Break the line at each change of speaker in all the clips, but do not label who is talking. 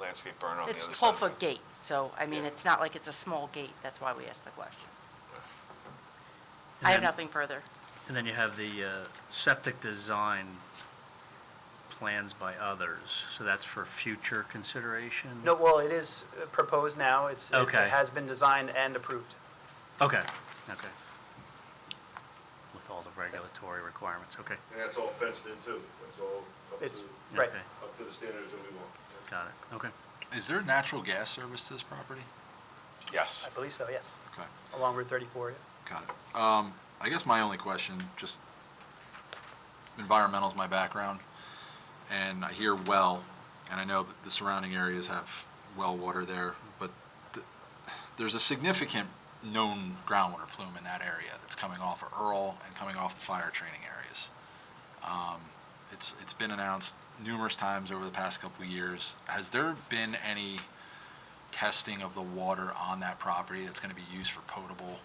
landscape berm on the other
It's
side. of it.
twelve-foot gate, so, I mean,
Yeah.
it's not like it's a small gate, that's why we asked the question.
And
I have
then-
nothing further.
And then you have the uh, septic design plans by others, so that's for future consideration?
No, well, it is uh, proposed now. It's, it
Okay.
has been designed and approved.
Okay, okay. With all the regulatory requirements, okay,
And that's all fenced in too. That's all up
It's,
to,
right.
Okay.
up to the standards that we want.
got it, okay.
Is there natural gas service to this property?
Yes.
I believe so, yes,
Okay,
along Route 34. yeah.
got it. Um, I guess my only question, just environmental's my background, and I hear well, and I know that the surrounding areas have well water there, but th- there's a significant known groundwater plume in that area that's coming off of Earl and coming off the fire training areas. Um, It's, it's been announced numerous times over the past couple of years. Has there been any testing of the water on that property that's going to be used for potable?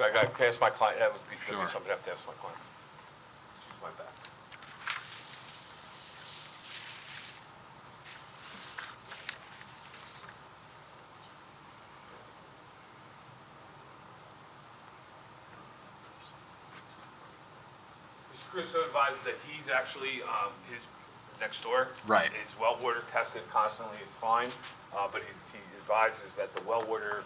I got to ask my client, that would be that'd be
Sure.
something I have to ask my client. She's my back. Mr. Caruso advises that he's actually, um, his next door.
Right.
Is well water tested constantly, it's fine, uh, but he's- he advises that the well water,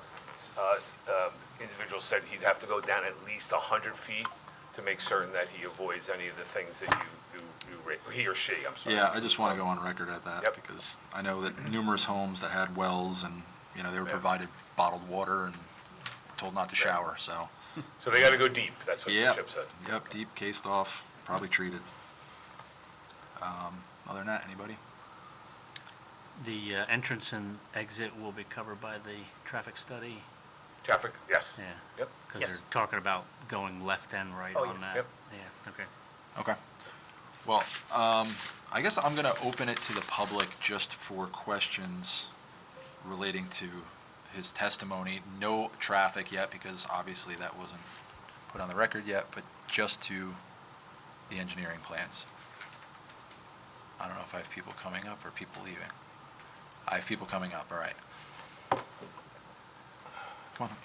uh, um, individual said he'd have to go down at least hundred feet to make certain that he avoids any of the things that you, you, you, ra- he or she, I'm sorry.
Yeah, I just want to go on record at that
Yep.
because I know that numerous homes that had wells and, you know, they were
Yeah.
provided bottled water and were told not to
Right.
shower, so.
So they gotta go deep, that's what
Yeah,
Chip said.
yep, deep, cased off, probably treated. Um, Other than that, anybody?
The uh, entrance and exit will be covered by the traffic study?
Traffic, yes.
Yeah,
Yep.
because
Yes.
they're talking about going left and right
Oh,
on
yeah.
that.
Yep.
Yeah, okay.
Okay. Well, um, I guess I'm going to open it to the public just for questions relating to his testimony. No traffic yet, because obviously that wasn't put on the record yet, but just to the engineering plans. I don't know if I have people coming up or people leaving. I have people coming up, all right. Come on.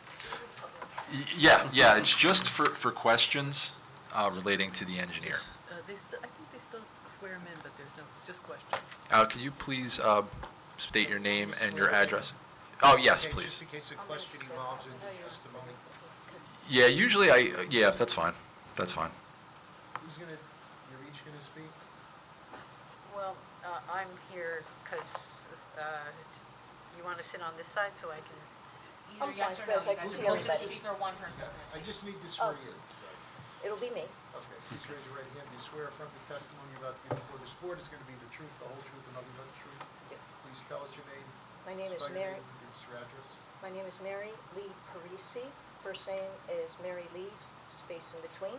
Y- Yeah, yeah, it's just for, for questions uh, relating to the engineer.
Uh, They still, I think they still swear him in, but there's no, just question.
Uh, Can you please uh, state your name and your address? Oh, yes,
Okay,
please.
Just in case the question evolves into
Oh,
testimony,
Yeah, usually I, yeah, that's fine. That's fine.
who's gonna, you're each gonna speak?
Well, uh, I'm here because you want to sit on this side so I can...
Either yes or no, you guys,
see
one person
everybody.
to speak or one person.
Yeah, I just need to
Oh.
swear you in, so,
It'll be me.
okay, please raise your right hand, do you swear affirm the testimony about to give before this board is gonna be the truth, the whole truth, and nothing but the truth?
Yeah.
Please tell us your name.
My name is
spell your name,
Mary,
and Give us your address.
my name is Mary Lee Parisi. First name is Mary Leaves, space in between,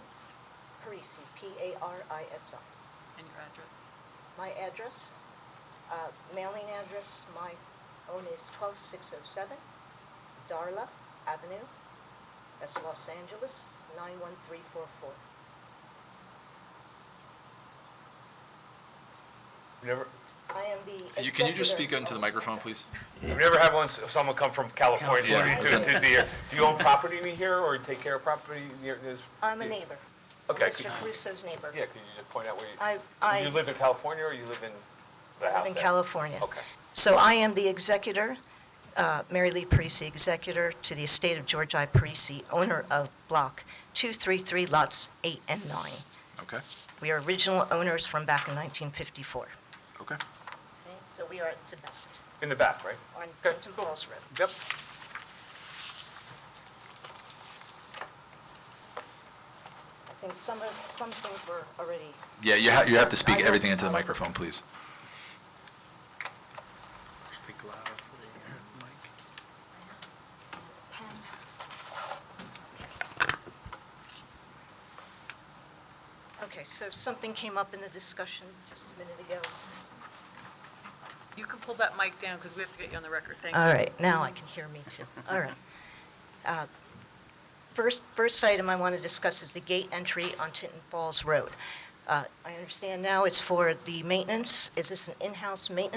Parisi, P-A-R-I-S-I.
And your address?
My address, uh, mailing address, my own is 12607 Darla Avenue, that's Los Angeles, 91344.
You never,
I am the
Can you- Can you just
executor-
speak into the microphone, please?
you never had one, s- someone come from California
California.
to, to the, do you own property near here or take care of property near this?
I'm a neighbor.
Okay,
Mr.
could you-
Caruso's neighbor.
Yeah, could you just point out where you?
I, I
You live in California or you live in the house
live in
there?
California.
Okay.
So I am the executor, uh, Mary Lee Parisi, executor to the estate of George I. Parisi, owner of Block 233, lots 8 and 9.
Okay,
We are original owners from back in 1954.
okay.
So we are at the back,
In the back, right?
on Clinton Falls Road.
Yep.
I think some of, some things were already
Yeah, you have, you have to
I
speak
don't-
everything into the microphone, please.
Speak loud for the mic.
Okay, so something came up in the discussion just a minute ago.
You can pull that mic down because we have to get you on the record. Thank you.
All right, now I can hear me too. All right. Uh, First, first item I want to discuss is the gate entry on Tinton Falls Road. Uh, I understand now it's for the maintenance, is this an in-house maintenance